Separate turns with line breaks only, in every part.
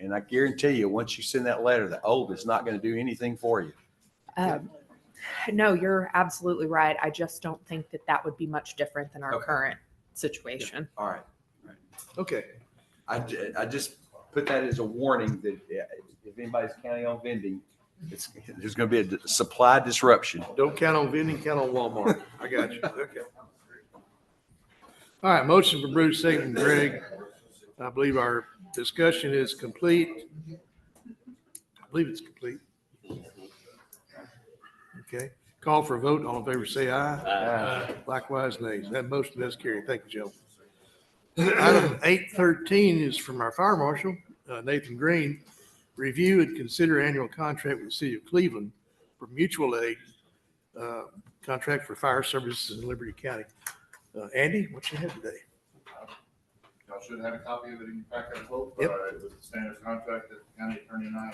And I guarantee you, once you send that letter, the old is not going to do anything for you.
Um, No, you're absolutely right. I just don't think that that would be much different than our
Okay.
current situation.
All right.
Okay.
I, ju- I just put that as a warning that yeah, if anybody's counting on vending, it's, there's going to be a supply disruption.
Don't count on vending, count on Walmart. I got you. Okay. All right, motion from Bruce, second from Greg. I believe our discussion is complete. I believe it's complete. Okay, call for a vote. All in favor, say aye. Likewise, nays. That motion does carry. Thank you, Joe. Item eight thirteen is from our fire marshal, uh, Nathan Green. Review and consider annual contract with the city of Cleveland for mutual aid uh, contract for fire services in Liberty County. Uh, Andy, what you have today?
Y'all should have a copy of it in your packet as well. but
Yep.
It was the standard contract that the county attorney and I had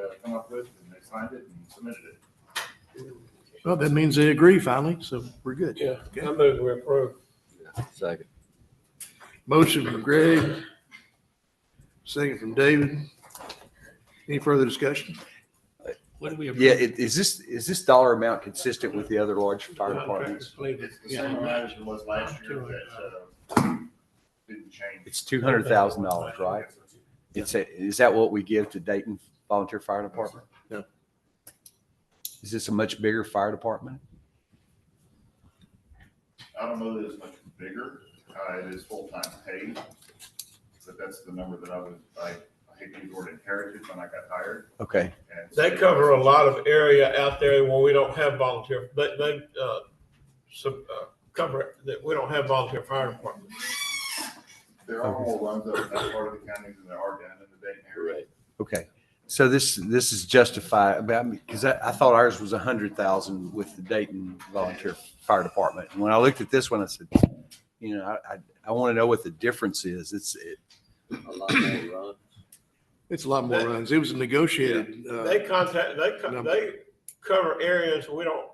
uh, come up with, and they signed it and submitted it.
Well, that means they agree finally, so we're good.
Yeah, I move we approve.
Second.
Motion from Greg, second from David. Any further discussion?
What do we? approve?
Yeah, it- is this, is this dollar amount consistent with the other large fire departments?
Contracts, please.
It's the same
Yeah.
amount as it was last year, that uh, didn't change.
It's two hundred thousand dollars, right? It's a, is that what we give to Dayton Volunteer Fire Department?
No.
Is this a much bigger fire department?
I don't know that it's much bigger, uh, it is full-time paid, but that's the number that I was, I I hate to use the word inherited when I got hired.
Okay,
and so-
They cover a lot of area out there where we don't have volunteer, they, they, uh, some, uh, cover it, that we don't have volunteer fire department.
There are more runs up in that part of the county than there are down in the Dayton area.
okay. So this, this is justified, I mean, because I, I thought ours was a hundred thousand with the Dayton Volunteer Fire Department. And when I looked at this one, I said, you know, I, I, I want to know what the difference is. It's, it,
It's a lot more runs. It was a negotiated. uh,
They contact, they, co-
Number.
they cover areas we don't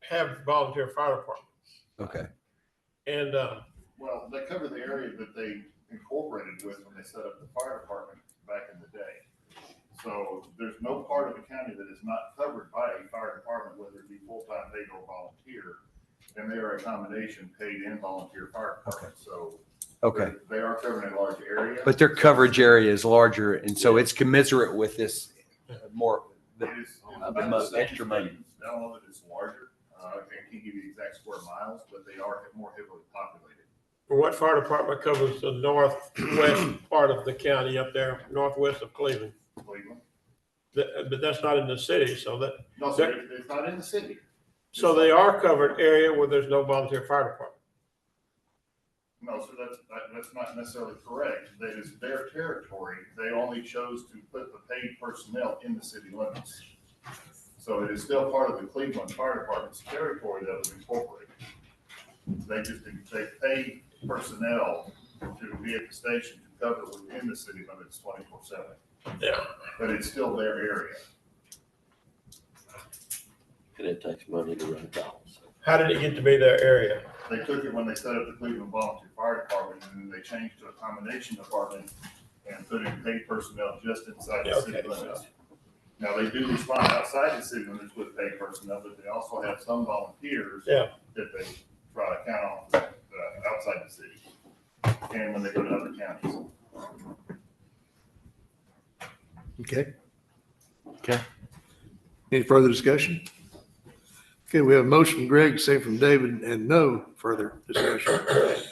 have volunteer fire department.
okay,
And, uh,
Well, they cover the area that they incorporated with when they set up the fire department back in the day. So there's no part of the county that is not covered by a fire department, whether it be full-time paid or volunteer. And they are a combination paid and volunteer fire department, so.
okay.
They are covering a large area.
But their coverage area is larger and so it's commensurate with this uh, more,
It
the
is- it's
the
about the
most
same
extra money.
thing. I don't know that it's larger, uh, I can't give you the exact square miles, but they are more heavily populated.
what fire department covers the northwest part of the county up there, northwest of Cleveland?
Cleveland,
That- but that's not in the city, so that,
no, so it- it's not in the city.
so they are covered area where there's no volunteer fire department.
No, so that's, that- that's not necessarily correct. That is their territory. They only chose to put the paid personnel in the city limits. So it is still part of the Cleveland Fire Department's territory that was incorporated. They just, they paid personnel to be at the station to cover within the city limits twenty-four seven.
Yeah.
But it's still their area.
And it takes money to run calls.
How did it get to be their area?
They took it when they set up the Cleveland Volunteer Fire Department, and then they changed to a combination department and put in paid personnel just inside the city
Okay.
limits. Now, they do respond outside the city limits with paid personnel, but they also have some volunteers
Yeah.
that they try to count on, uh, outside the city, and when they go to other counties.
Okay.
Okay.
Any further discussion? Okay, we have a motion from Greg, second from David, and no further discussion.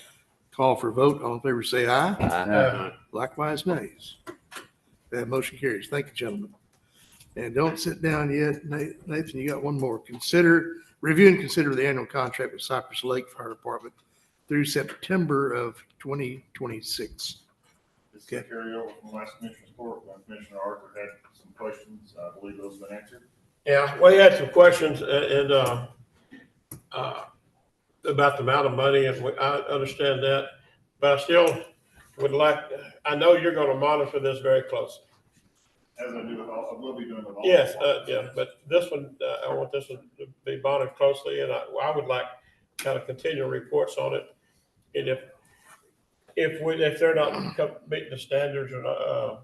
Call for vote. All in favor, say aye.
uh,
Likewise, nays. That motion carries. Thank you, gentlemen. And don't sit down yet. Na- Nathan, you got one more. Consider, review and consider the annual contract with Cypress Lake Fire Department through September of 2026.
This is a carryover from last commissioner's court, when Commissioner Arthur had some questions, I believe those have been answered.
Yeah, well, he had some questions uh, and, uh, uh, about the amount of money and we- I understand that. But I still would like, I know you're going to monitor this very closely.
As I do with all, I will be doing with all.
Yes, uh, yeah, but this one, uh, I want this one to be monitored closely and I, I would like kind of continual reports on it. And if, if we, if they're not co- meeting the standards or, not, uh,